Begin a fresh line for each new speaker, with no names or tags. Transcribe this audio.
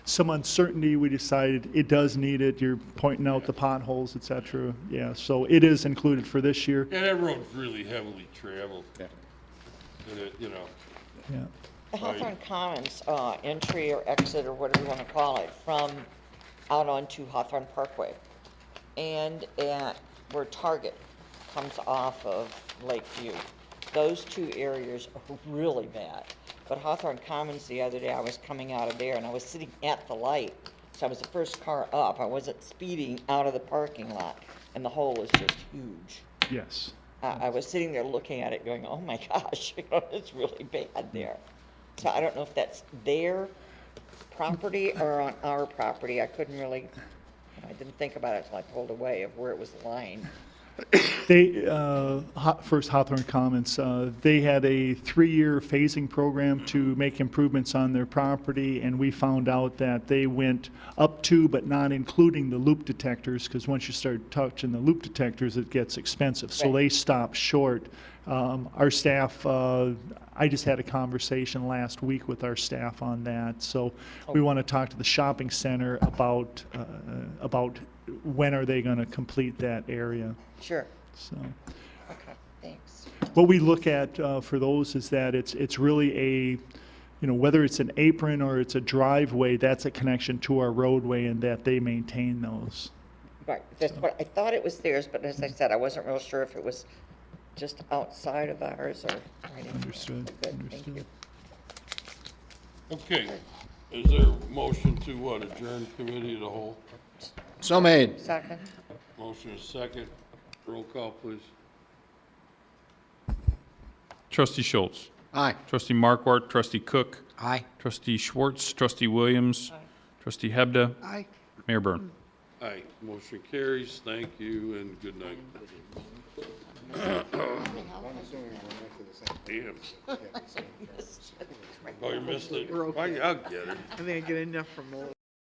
some uncertainty, we decided it does need it. You're pointing out the potholes, et cetera. Yeah, so it is included for this year.
Yeah, that road's really heavily traveled,
Yeah.
and it, you know,
Yeah.
The Hawthorne Commons, uh, entry or exit or whatever you wanna call it, from out onto Hawthorne Parkway. And at where Target comes off of Lakeview. Those two areas are really bad. But Hawthorne Commons, the other day, I was coming out of there and I was sitting at the light. So I was the first car up. I wasn't speeding out of the parking lot and the hole is just huge.
Yes.
I, I was sitting there looking at it going, oh my gosh, you know, it's really bad there. So I don't know if that's their property or on our property. I couldn't really, I didn't think about it till I pulled away of where it was lying.
They, uh, Ho- First Hawthorne Commons, uh, they had a three-year phasing program to make improvements on their property, and we found out that they went up to but not including the loop detectors, because once you start touching the loop detectors, it gets expensive. So
Right.
they stopped short. Um, Our staff, uh, I just had a conversation last week with our staff on that, so we want to talk to the shopping center about, uh, about when are they going to complete that area.
Sure.
So,
Okay, thanks.
what we look at uh, for those is that it's, it's really a, you know, whether it's an apron or it's a driveway, that's a connection to our roadway and that they maintain those.
Right, that's what, I thought it was theirs, but as I said, I wasn't real sure if it was just outside of ours or. right in there.
Understood,
Good, thank
understood.
you.
okay. Is there a motion to what, adjourn committee of the whole?
So made.
Second,
Motion is second, roll call, please.
Trustee Schultz.
Aye.
Trustee Markwart. Trustee Cook.
Aye.
Trustee Schwartz. Trustee Williams. Trustee Hebda.
Aye.
Mayor Byrne.
Aye, motion carries, thank you, and good night. Damn. Oh, you missed it. Why, I'll get it.
I think I get enough from all